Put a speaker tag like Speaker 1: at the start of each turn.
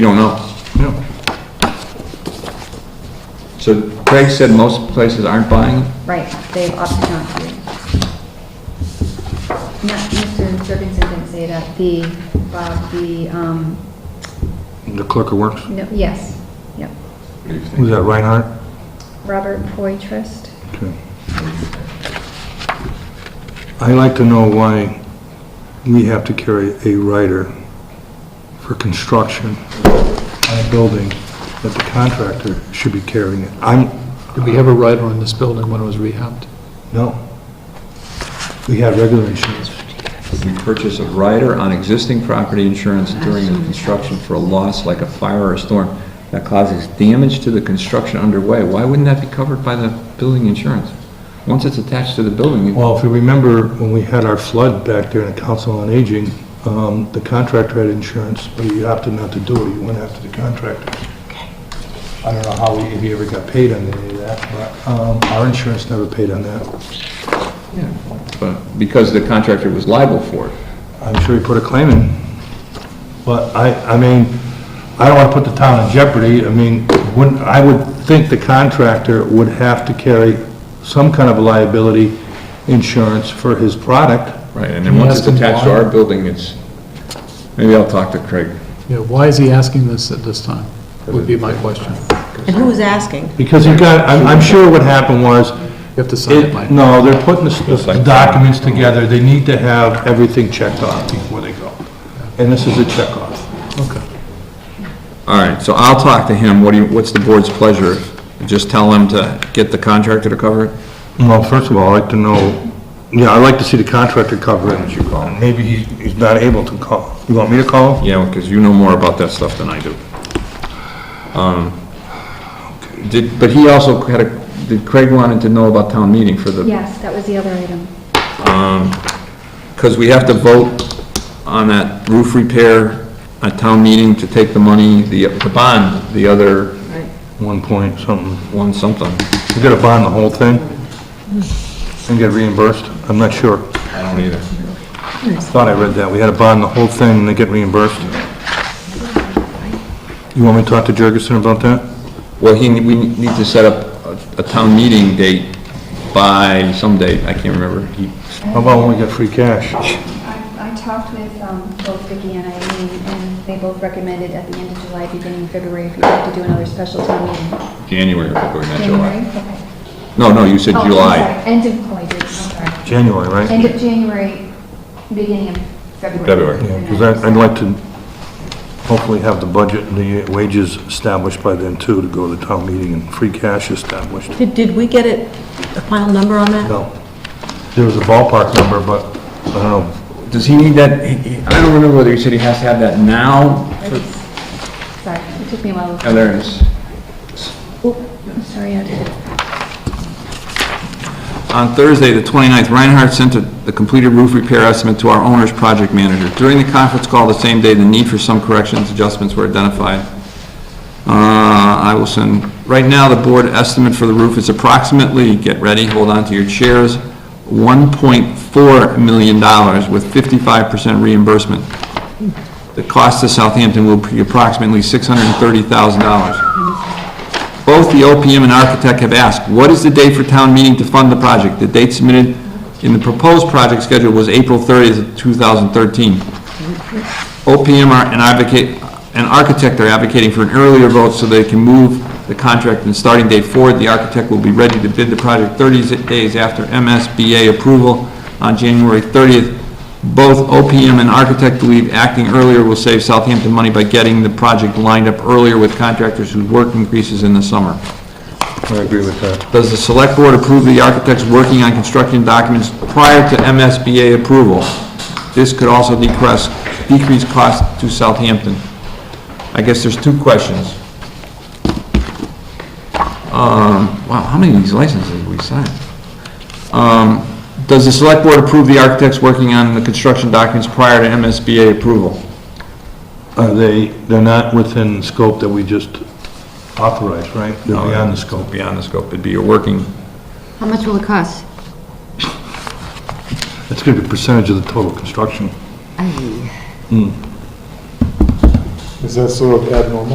Speaker 1: You don't know.
Speaker 2: No.
Speaker 1: So Craig said most places aren't buying them?
Speaker 3: Right, they've opted not to. No, Mr. Jorgensen didn't say that, the, Bob, the, um,
Speaker 2: The clerk of works,
Speaker 3: no, yes, yep,
Speaker 1: What do you think?
Speaker 2: who's that, Reinhardt?
Speaker 3: Robert Poitras.
Speaker 2: Okay. i like to know why we have to carry a rider for construction on a building that the contractor should be carrying it. I'm,
Speaker 4: Did we have a rider on this building when it was rehabbed?
Speaker 2: no. We have regular insurance.
Speaker 1: We purchase a rider on existing property insurance during the construction for a loss like a fire or a storm that causes damage to the construction underway. Why wouldn't that be covered by the building insurance? Once it's attached to the building, you-
Speaker 2: Well, if you remember, when we had our flood back there in the Council on Aging, um, the contractor had insurance, but he opted not to do it, he went after the contractor. I don't know how, we- if he ever got paid on any of that, but um, our insurance never paid on that.
Speaker 1: yeah, but because the contractor was liable for it.
Speaker 2: I'm sure he put a claim in, but I, I mean, I don't want to put the town in jeopardy, I mean, wouldn't, I would think the contractor would have to carry some kind of liability insurance for his product.
Speaker 1: Right, and then once it's
Speaker 4: Yes, and
Speaker 1: attached to our
Speaker 4: why?
Speaker 1: building, it's, maybe I'll talk to Craig.
Speaker 4: Yeah, why is he asking this at this time? Would be my question. You
Speaker 5: And who's asking?
Speaker 2: Because you got, I'm, I'm sure what happened was,
Speaker 4: have to sign it,
Speaker 2: It-
Speaker 4: Mike.
Speaker 2: No, they're putting the
Speaker 1: Just
Speaker 2: the
Speaker 1: like-
Speaker 2: documents together, they need to have everything checked off before they go. And this is a checkoff.
Speaker 4: Okay.
Speaker 1: All right, so I'll talk to him. What do you, what's the board's pleasure? Just tell him to get the contractor to cover it?
Speaker 2: Well, first of all, I'd like to know, yeah, I'd like to see the contractor cover it. you call Maybe he's, he's not able to call. You want me to call? him?
Speaker 1: Yeah, because you know more about that stuff than I do. Um, Did, but he also had a, did Craig wanted to know about town meeting for the,
Speaker 3: Yes, that was the other item.
Speaker 1: because we have to vote on that roof repair at town meeting to take the money, the, the bond, the other
Speaker 2: One point something.
Speaker 1: one something.
Speaker 2: You gotta bond the whole thing? And get reimbursed? I'm not sure.
Speaker 1: I don't either.
Speaker 2: Thought I read that. We had to bond the whole thing and then get reimbursed. You want me to talk to Jurgensen about that?
Speaker 1: Well, he, we need to set up a- a town meeting date by some date, I can't remember. He
Speaker 2: How about when we get free cash?
Speaker 3: I, I talked with, um, both Vicki and Eileen, and they both recommended at the end of July, beginning of February, if you'd like to do another special town meeting.
Speaker 1: January or February, not
Speaker 3: January?
Speaker 1: July.
Speaker 3: Okay.
Speaker 1: No, no, you said
Speaker 3: Oh, I'm
Speaker 1: July.
Speaker 3: sorry, End of, oh, I did, I'm sorry.
Speaker 2: January, right?
Speaker 3: End of January, beginning of February.
Speaker 1: February.
Speaker 2: Yeah, because I'd like to hopefully have the budget and the wages established by then too, to go to the town meeting and free cash established.
Speaker 5: Did, did we get it, a final number on that?
Speaker 2: No, there was a ballpark number, but I don't know,
Speaker 1: Does he need that, he- he- I don't remember whether he said he has to have that now.
Speaker 3: Sorry, it took me a while.
Speaker 1: Oh, there it is.
Speaker 3: I'm sorry, I did.
Speaker 1: On Thursday, the 29th, Reinhardt sent a- the completed roof repair estimate to our owner's project manager. During the conference call the same day, the need for some corrections, adjustments were identified. Uh, I will send, right now, the board estimate for the roof is approximately, get ready, hold on to your chairs, $1.4 million with 55% reimbursement. The cost to Southampton will be approximately $630,000. Both the OPM and architect have asked, what is the date for town meeting to fund the project? The date submitted in the proposed project schedule was April 30th, of 2013. OPM are- and advocate, and architect are advocating for an earlier vote so they can move the contract and starting date forward. The architect will be ready to bid the project 30 days after MSBA approval on January 30th. Both OPM and architect believe acting earlier will save Southampton money by getting the project lined up earlier with contractors whose work increases in the summer.
Speaker 2: I agree with that.
Speaker 1: Does the select board approve the architects working on construction documents prior to MSBA approval? This could also decrease, decrease cost to Southampton. I guess there's two questions. Um, wow, how many of these licenses have we signed? Um, does the select board approve the architects working on the construction documents prior to MSBA approval?
Speaker 2: Are Uh, they, they're not within the scope that we just authorized, right? They're
Speaker 1: No.
Speaker 2: beyond the scope.
Speaker 1: Beyond the scope, it'd be a working,
Speaker 6: How much will it cost?
Speaker 2: It's gonna be a percentage of the total construction. Is that sort of abnormal?